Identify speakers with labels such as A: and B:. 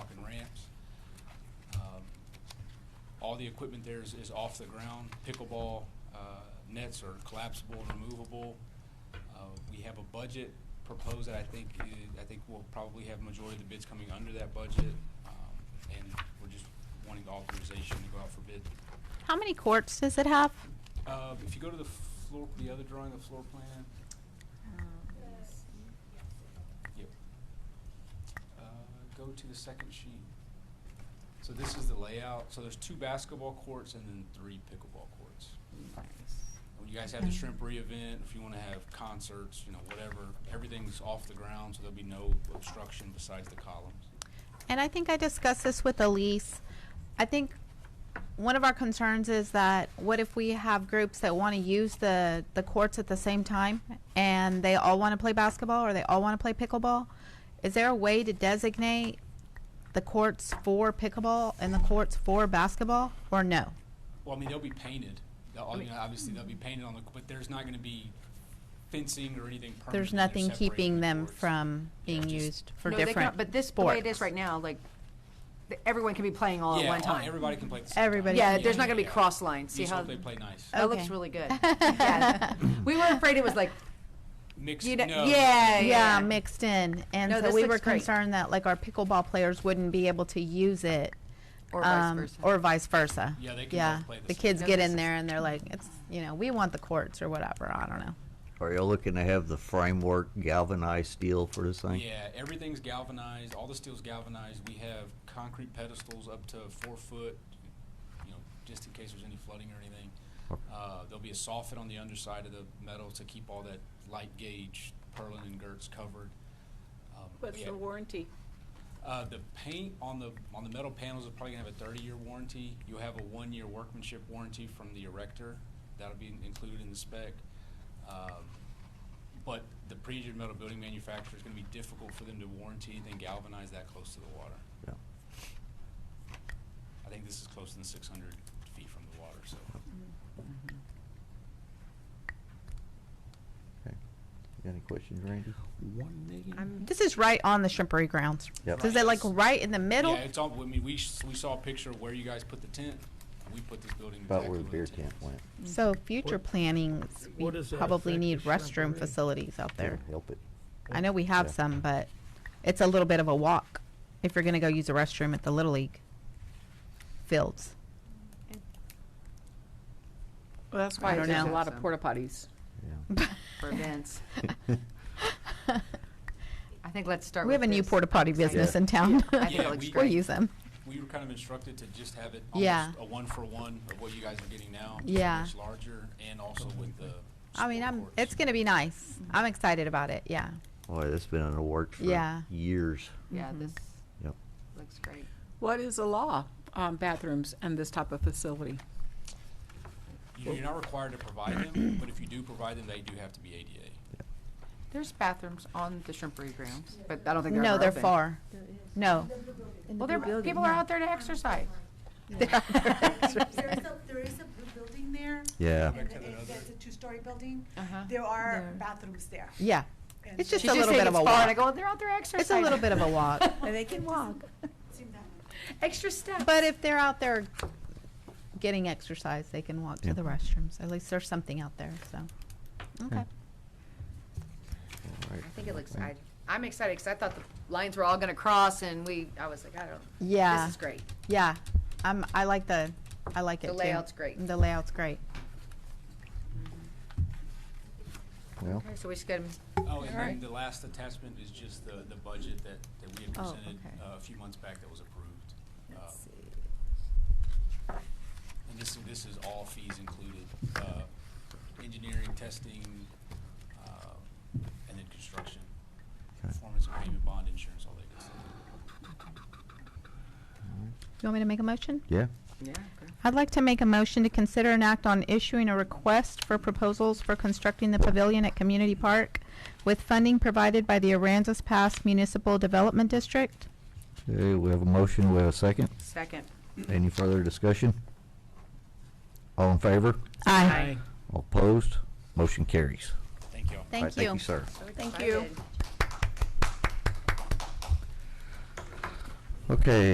A: Um, All the equipment there is, is off the ground. Pickleball, uh, nets are collapsible and removable. Uh, we have a budget proposed that I think, uh, i- I think we'll probably have majority of the bids coming under that budget. Um, and we're just wanting authorization to go out for bid.
B: How many courts does it have?
A: Uh, if you go to the floor, the other drawing, the floor plan, yep. Uh, go to the second sheet. So this is the layout. So there's two basketball courts and then three pickleball courts. When you guys have the shrimpery event, if you wanna have concerts, you know, whatever, everything's off the ground, so there'll be no obstruction besides the columns.
B: And I think I discussed this with Elise. I think one of our concerns is that what if we have groups that want to use the, the courts at the same time and they all want to play basketball or they all want to play pickleball? Is there a way to designate the courts for pickleball and the courts for basketball or no?
A: Well, I mean, they'll be painted. They'll, you know, obviously, they'll be painted on the, but there's not gonna be fencing or anything permanent.
B: There's
A: in there
B: nothing
A: separating
B: keeping
A: the
B: them
A: courts.
B: from being
A: just-
B: used for
C: No, they
B: different
C: cannot- But this, the way it is right now, like, th- everyone can be playing all at
A: Yeah,
C: one
A: all-
C: time.
A: everybody can play at the same time.
B: Everybody
C: Yeah,
B: can.
C: there's not gonna be
A: Yeah.
C: cross lines,
A: You
C: see
A: just
C: how,
A: hope they play nice.
C: that looks
B: Okay.
C: really good. Yeah. We were afraid it was like,
A: Mixed,
C: you know,
A: no.
C: yeah,
B: yeah, mixed in. And
C: No,
B: so
C: this
B: we
C: looks
B: were
C: great.
B: concerned that like our pickleball players wouldn't be able to use it.
C: Or vice
B: um,
C: versa.
B: Or vice versa.
A: Yeah, they can both play the
B: The
A: same.
B: kids
C: No,
B: get
C: this
B: in
C: is-
B: there and they're like, it's, you know, we want the courts or whatever. I don't know.
D: Are you looking to have the framework galvanized steel for this thing?
A: Yeah, everything's galvanized. All the steel's galvanized. We have concrete pedestals up to four foot, you know, just in case there's any flooding or anything. Uh, there'll be a soffit on the underside of the metal to keep all that light gauge purlin and girts covered. Um, but
E: What's
A: yeah,
E: the warranty?
A: Uh, the paint on the on the metal panels is probably gonna have a 30 year warranty. You'll have a one year workmanship warranty from the erector. That'll be in- included in the spec. Um, but the pre-engineered metal building manufacturer is gonna be difficult for them to warranty anything galvanized that close to the water.
D: Yeah.
A: I think this is closer than 600 feet from the water, so.
D: Okay. You got any questions, Randy?
F: One million?
B: Mm-hmm. This is right on the shrimpery grounds.
D: Yep.
B: So is it like right in the middle?
A: Yeah, it's all, I mean, we, s- we saw a picture of where you guys put the tent. We put this building
D: About
A: exactly
D: where
A: where
D: the beer
A: tent
D: tent
A: is.
D: went.
B: So future
F: What-
B: planning, we
F: what does that
B: probably
F: affect
B: need
F: the
B: restroom
F: shrimpery?
B: facilities out there.
D: It'll Help it.
B: I know we have
D: Yeah.
B: some, but it's a little bit of a walk if you're going to go use a restroom at the Little League fields.
E: Well, that's
B: I
E: why
B: don't
E: there's a
B: know.
E: lot of porta potties.
D: Yeah.
C: for events. I think let's start
B: We
C: with
B: have a new
C: this.
B: porta potty business in town.
C: I think
A: Yeah,
C: it looks
A: we-
B: We'll
C: great.
B: use them.
A: we were kind of instructed to just have it
B: Yeah.
A: almost a one for one of what you guys are getting now.
B: Yeah.
A: It's larger and also with the.
B: I mean,
A: sport
B: I'm,
A: courts.
B: it's going to be nice. I'm excited about it. Yeah.
D: Boy, that's been in the works
B: Yeah.
D: for years.
B: Mm-hmm.
C: Yeah, this
D: Yep.
C: looks great.
E: What is the law on bathrooms and this type of facility?
A: You- You're not required to provide them, but if you do provide them, they do have to be ADA.
C: There's bathrooms on the shrimpery grounds, but I don't think they're
B: No,
C: ever
B: they're
C: open.
B: far. No.
C: Well, there, people are out there to exercise.
G: There is a, there is a blue building there.
D: Yeah.
G: And it- It's a two-story building.
C: Uh-huh.
G: There are bathrooms there.
B: Yeah.
G: And
B: It's just
C: She
B: a little
C: said
B: bit of
C: it's
B: a
C: far, And I
B: walk.
C: go, they're out there exercising.
B: It's a little bit of a walk.
E: And they can walk.
G: Seem that way.
C: Extra steps.
B: But if they're out there getting exercise, they can walk to
D: Yeah.
B: the restrooms. At least there's something out there, so. Okay.
D: All right.
C: I think it looks, I, I'm excited because I thought the lines were all going to cross and we, I was like, I don't,
B: Yeah.
C: this is great.
B: Yeah. I'm, I like the, I like it
C: The
B: too.
C: layout's great.
B: The layout's great.
D: Well,
C: Okay, so we just got 'em-
A: Oh, and then
C: Alright.
A: the last attachment is just the, the budget that, that we had
B: Oh,
A: presented
B: okay.
A: uh, a few months back that was approved. Uh, And this, this is all fees included, uh, engineering, testing, uh, and then construction.
D: Okay.
A: Performance agreement, bond insurance, all that good stuff.
B: You want me to make a motion?
D: yeah.
C: Yeah.
B: I'd like to make a motion to consider an act on issuing a request for proposals for constructing the pavilion at Community Park with funding provided by the Aransas Pass Municipal Development District.
D: Okay, we have a motion. We have a second.
C: Second.
D: Any further discussion? All in favor?
B: Aye.
D: All opposed? Motion carries.
A: Thank you all.
D: All right,
B: Thank you.
D: Thank you, sir.
C: So
B: Thank you.
C: excited.
D: Okay,